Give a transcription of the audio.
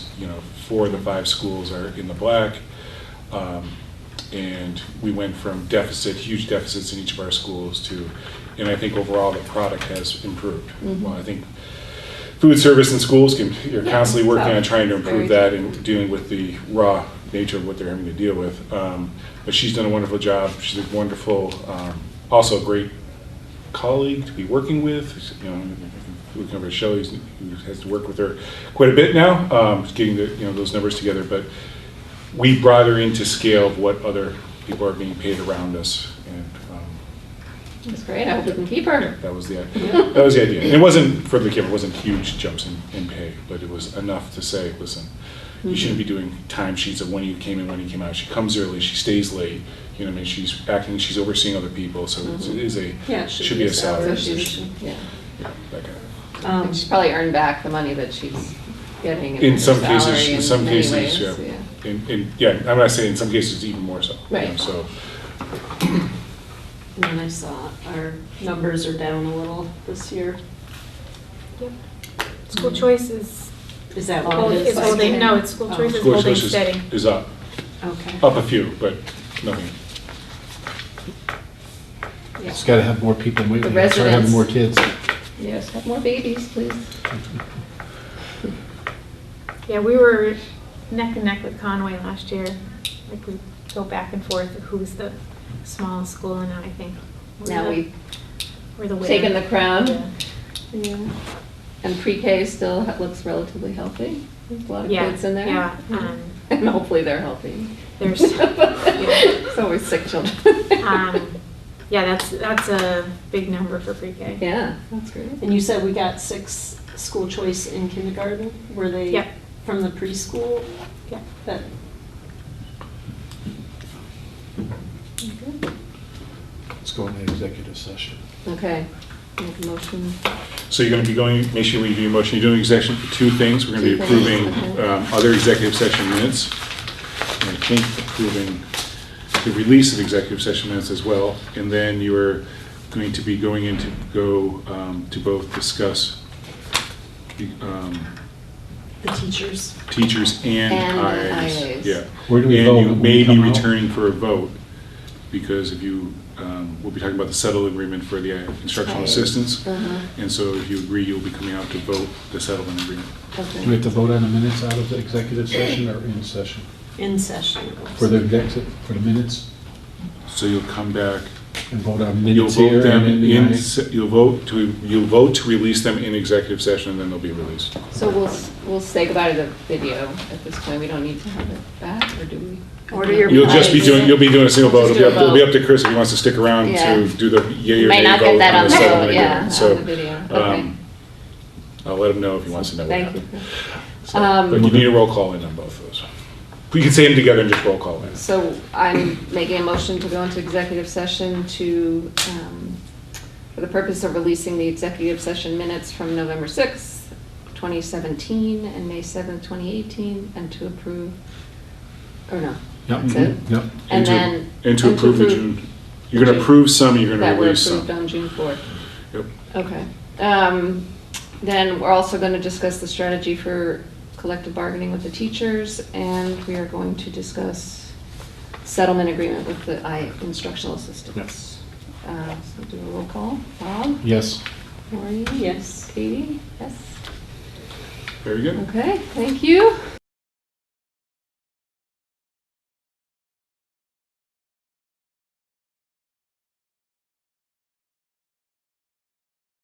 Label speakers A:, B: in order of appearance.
A: you know, four of the five schools are in the black. Um, And we went from deficit, huge deficits in each of our schools to, and I think overall the product has improved. Well, I think food service in schools can, you're
B: Yeah,
A: constantly working on
B: so,
A: trying to
B: very
A: improve
B: true.
A: that and dealing with the raw nature of what they're having to deal with. Um, But she's done a wonderful job. She's a wonderful, um, also a great colleague to be working with. You know, looking over at Shelley, who's- who has to work with her quite a bit now, um, getting the, you know, those numbers together. But we brought her into scale of what other people are being paid around us. And um,
B: That's great, I hope we can keep
A: yeah,
B: her.
A: that was the, that was the idea. And it wasn't for the kid, it wasn't huge jumps in, in pay, but it was enough to say, listen, you shouldn't be doing time sheets of when you came in, when you came out. She comes early, she stays late, you know, what I mean, she's acting, she's overseeing other people, so it's- it is a,
B: Yeah, it
A: should be a salary
B: So she's-
A: position.
B: Yeah.
A: Yeah, that kind of.
B: Um, She's probably earned back the money that she's getting.
A: In some
B: her salary
A: cases, in some
B: many
A: cases,
B: ways,
A: yeah. In, in, yeah, I'm gonna say in some cases even more so. you know,
B: Right.
A: So,
C: And then I saw our numbers are down a little this year.
D: Yep. School choice is,
C: Is that
D: well,
C: what it is?
D: it's holding, no, it's school
C: Oh.
D: choice is
A: school
D: holding
A: choice is,
D: steady.
A: is up,
C: Okay.
A: up a few, but nothing.
B: Yeah.
E: It's gotta have more people moving,
B: The
E: start having
B: residents.
E: more kids.
B: Yes, have more babies, please.
D: Yeah, we were neck and neck with Conway last year. Like, we go back and forth of who's the smallest school, and now I think. we're
B: Now
D: the-
B: we've
D: We're the winner.
B: taken the crown.
D: Yeah.
B: Yeah. And pre-K still ha- looks relatively healthy. There's a lot of
D: Yeah,
B: kids in there.
D: yeah, um,
B: And hopefully they're healthy.
D: There's-
B: It's always sick children.
D: Um, Yeah, that's, that's a big number for pre-K.
B: Yeah, that's great.
C: And you said we got six school choice in kindergarten? Were they?
D: Yep.
C: From the preschool?
D: Yeah.
C: That,
E: Let's go into executive session.
B: Okay, make a motion.
A: So you're gonna be going, make sure we do your motion, you're doing execution for two things, we're gonna be
B: Two things,
A: approving,
B: okay.
A: um, other executive session minutes. And I think approving the release of executive session minutes as well, and then you're going to be going in to go, um, to both discuss, the, um,
C: the teachers?
A: teachers and
B: And
A: IAs.
B: IAs.
A: Yeah.
E: Where do we vote
A: And you
E: when
A: may
E: we
A: be
E: come out?
A: returning for a vote, because if you, um, we'll be talking about the settle agreement for the uh, instructional
B: Right.
A: assistance.
B: Uh-huh,
A: And so if you agree, you'll be coming out to vote the settlement agreement.
B: okay.
E: Do we have to vote on the minutes out of the executive session or in session?
C: In session.
E: For the exec, for the minutes,
A: So you'll come back,
E: and vote on
A: you'll
E: minutes
A: vote
E: here
A: them
E: and in the
A: in,
E: IA?
A: se- you'll vote to, you'll vote to release them in executive session, and then they'll be released.
B: So we'll, s- we'll say goodbye to the video at this point. We don't need to have it back, or do we?
C: Order your
A: You'll just be
C: Aye.
A: doing, you'll be doing a single vote,
B: Just
A: it'll be
B: do a
A: up, it'll be
B: vote.
A: up to Chris if he wants to stick around
B: Yeah.
A: to do the yea or
B: May
A: nay
B: not get
A: vote
B: that
A: on
B: on
A: the
B: the,
A: settlement
B: vote, yeah,
A: agreement.
B: on the
A: So,
B: video, okay.
A: um, I'll let him know if he wants to know what
B: Thank you.
A: happened. So,
B: Um,
A: But you need a roll call in on both of those. We can say them together and just roll call in.
B: So I'm making a motion to go into executive session to, um, for the purpose of releasing the executive session minutes from November 6th, 2017, and May 7th, 2018, and to approve, or no,
E: Yep,
B: that's it?
E: Yep,
B: And
A: to-
B: then.
A: And to approve the June, you're gonna
B: June-
A: approve some, you're gonna release
B: That were
A: some.
B: approved on June 4th.
A: Yep.
B: Okay. Um, Then we're also going to discuss the strategy for collective bargaining with the teachers, and we are going to discuss settlement agreement with the I- instructional assistants. Uh, So do a roll call. Bob?
E: yes.
B: Maureen?
C: Yes.
B: Katie? Yes?
A: Very good.
B: Okay, thank you.